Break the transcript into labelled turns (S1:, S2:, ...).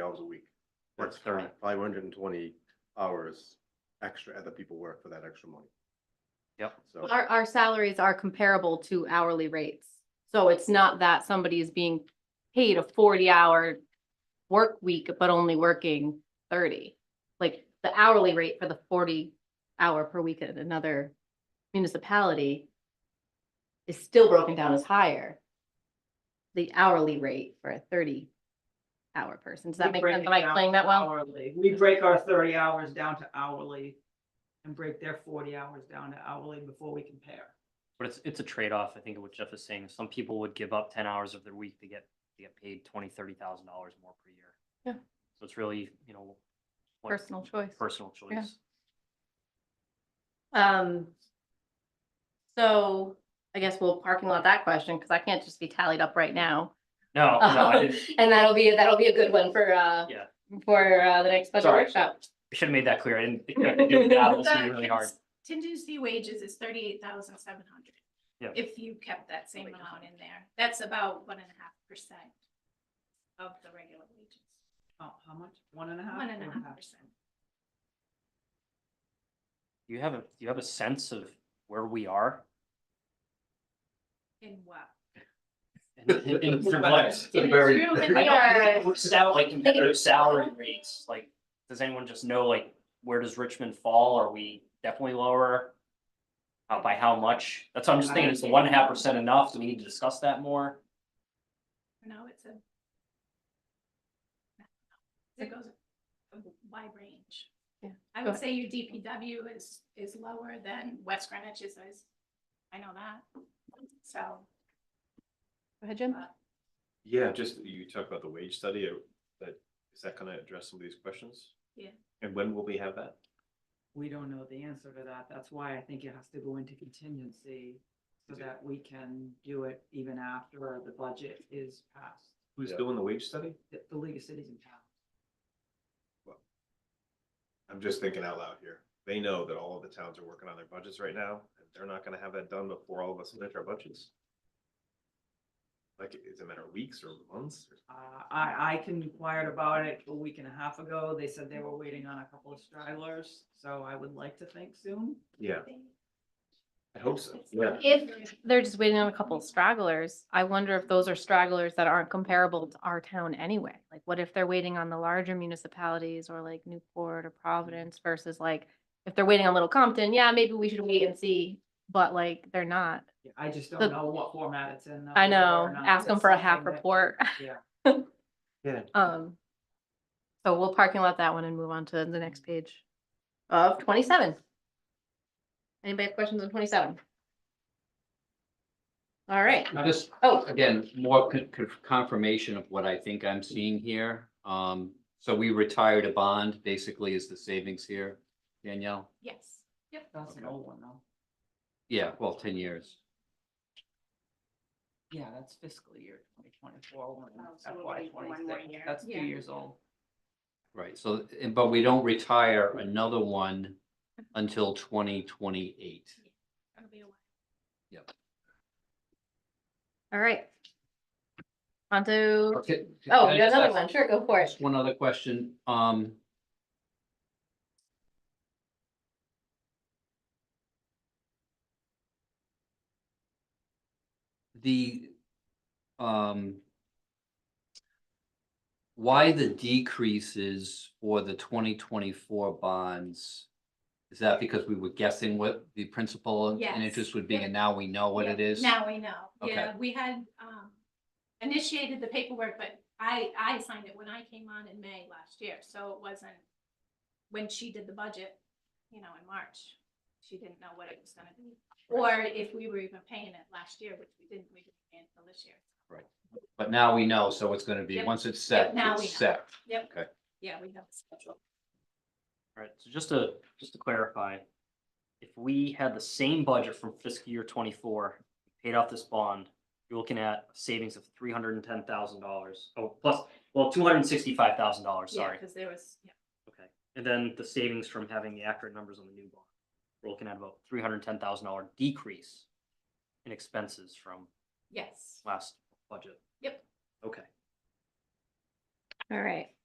S1: hours a week.
S2: That's
S1: That's thirty,
S2: high.
S1: five hundred and twenty hours extra that people work for that extra money.
S2: Yep.
S1: So,
S3: Our, our salaries are comparable to hourly rates. So it's not that somebody is being paid a forty-hour work week, but only working thirty. Like the hourly rate for the forty-hour per week at another municipality is still broken down as higher. The hourly rate for a thirty-hour person. Does that
S4: We
S3: make
S4: break
S3: sense?
S4: it
S3: Am I
S4: down
S3: explaining that well?
S4: Hourly, we break our thirty hours down to hourly and break their forty hours down to hourly before we compare.
S2: But it's, it's a trade-off, I think of what Jeff is saying. Some people would give up ten hours of their week to get, to get paid twenty, thirty thousand dollars more per year.
S3: Yeah.
S2: So it's really, you know. what-
S3: Personal choice.
S2: Personal
S3: Yeah.
S2: choice.
S3: Um. So I guess we'll parking lot that question because I can't just be tallied up right now.
S2: No, no, I
S3: And
S2: didn't,
S3: that'll be, that'll be a good one for, uh,
S2: Yeah.
S3: for, uh, the next special
S2: Sorry.
S3: workshop.
S2: I should have made that clear. I didn't. think I could do that. That was gonna be really hard.
S5: Contingency wages is thirty-eight thousand seven hundred.
S2: Yeah.
S5: If you kept that same amount in there, that's about one and a half percent of the regular wages,
S4: Oh, how much? One
S3: Uh,
S4: and a half?
S5: one and a half percent.
S2: Do You have a, do you have a sense of where we are?
S5: In what?
S2: in- in- in-
S1: It's a
S2: in
S1: balance.
S2: what-
S1: It's a
S2: in-
S1: very-
S2: I
S5: True,
S2: don't
S5: but
S2: think
S5: we are-
S2: it works out, Like competitive salary rates, like, does anyone just know, like, where does Richmond fall? Are we definitely lower? How, by how much? That's what I'm just thinking, is the one and a half percent enough? Do we need to discuss that more?
S5: No, it's a. It goes a wide range.
S3: Yeah,
S5: I
S3: go ahead.
S5: would say your DPW is, is lower than West Greenwich is, is- I know that. So,
S3: Go ahead, Jim.
S6: Yeah, just you talked about the wage study, uh, that, is that gonna address some of these questions?
S5: Yeah.
S6: And when will we have that?
S4: We don't know the answer to that. That's why I think it has to go into contingency so that we can do it even after the budget is passed,
S6: Who's
S1: Yeah.
S6: doing the wage study?
S4: the, the League of Cities and Towns.
S6: I'm just thinking out loud here. They know that all of the towns are working on their budgets right now, and they're not gonna have that done before all of us submit our budgets. Like, it's a matter of weeks or months, or-
S4: Uh, I, I can inquired about it a week and a half ago. They said they were waiting on a couple of stragglers, so I would like to think soon.
S6: yeah, I hope so, yeah.
S3: If they're just waiting on a couple of stragglers, I wonder if those are stragglers that aren't comparable to our town anyway. Like what if they're waiting on the larger municipalities or like Newport or Providence versus like, if they're waiting on Little Compton, yeah, maybe we should wait and see, but like they're not.
S4: Yeah, I just
S3: The-
S4: don't know what format it's in. though,
S3: I
S4: whether
S3: know,
S4: or not
S3: ask them
S4: it's
S3: for a half
S4: something that-
S3: report.
S4: Yeah.
S6: Yeah.
S3: Um, so we'll parking lot that one and move on to the next page of twenty-seven. Anybody have questions on twenty-seven? All right,
S7: Now, just,
S3: oh,
S7: again, more con- con- confirmation of what I think I'm seeing here. Um, so we retired a bond, basically, is the savings here, Danielle?
S5: yes. Yep.
S4: That's an
S7: Okay.
S4: old one though.
S7: Yeah, well, ten years.
S4: Yeah, that's fiscal year twenty twenty-four, one
S5: Oh, so we'll
S4: FY
S5: wait for one more
S4: twenty-six.
S5: year.
S4: That's two
S5: Yeah.
S4: years old.
S7: Right, so, and- but we don't retire another one until twenty twenty-eight.
S5: It'll be a while.
S3: all right. On to,
S7: Okay.
S3: oh, you got another one, sure, go for it.
S7: Just one other question, um. The, um. Why the decreases for the twenty twenty-four bonds? Is that because we were guessing what the principal and
S5: Yes.
S7: interest would be
S5: Yeah.
S7: and now we know what it
S5: Yeah,
S7: is?
S5: Now we know.
S7: Okay.
S5: Yeah, we had um initiated the paperwork, but I I signed it when I came on in May last year, so it wasn't when she did the budget, you know, in March, she didn't know what it was gonna be. Or if we were even paying it last year, which we didn't, we didn't pay it until this year.
S7: But now we know, so it's gonna be,
S5: Yep.
S7: once it's set,
S5: Yep, now we
S7: it's
S5: know.
S7: set.
S5: Yep.
S7: Okay.
S5: Yeah, we have a schedule.
S2: Right, so just to, just to clarify, if we had the same budget from fiscal year twenty-four, paid off this bond, you're looking at savings of three hundred and ten thousand dollars, oh, plus, well, two hundred and sixty-five thousand dollars,
S5: Yeah,
S2: sorry.
S5: because there was, yeah,
S2: Okay, and then the savings from having the accurate numbers on the new bond, we're looking at about three hundred and ten thousand dollar decrease in expenses from
S5: yes.
S2: last budget.
S5: Yep.
S2: Okay,
S3: All right,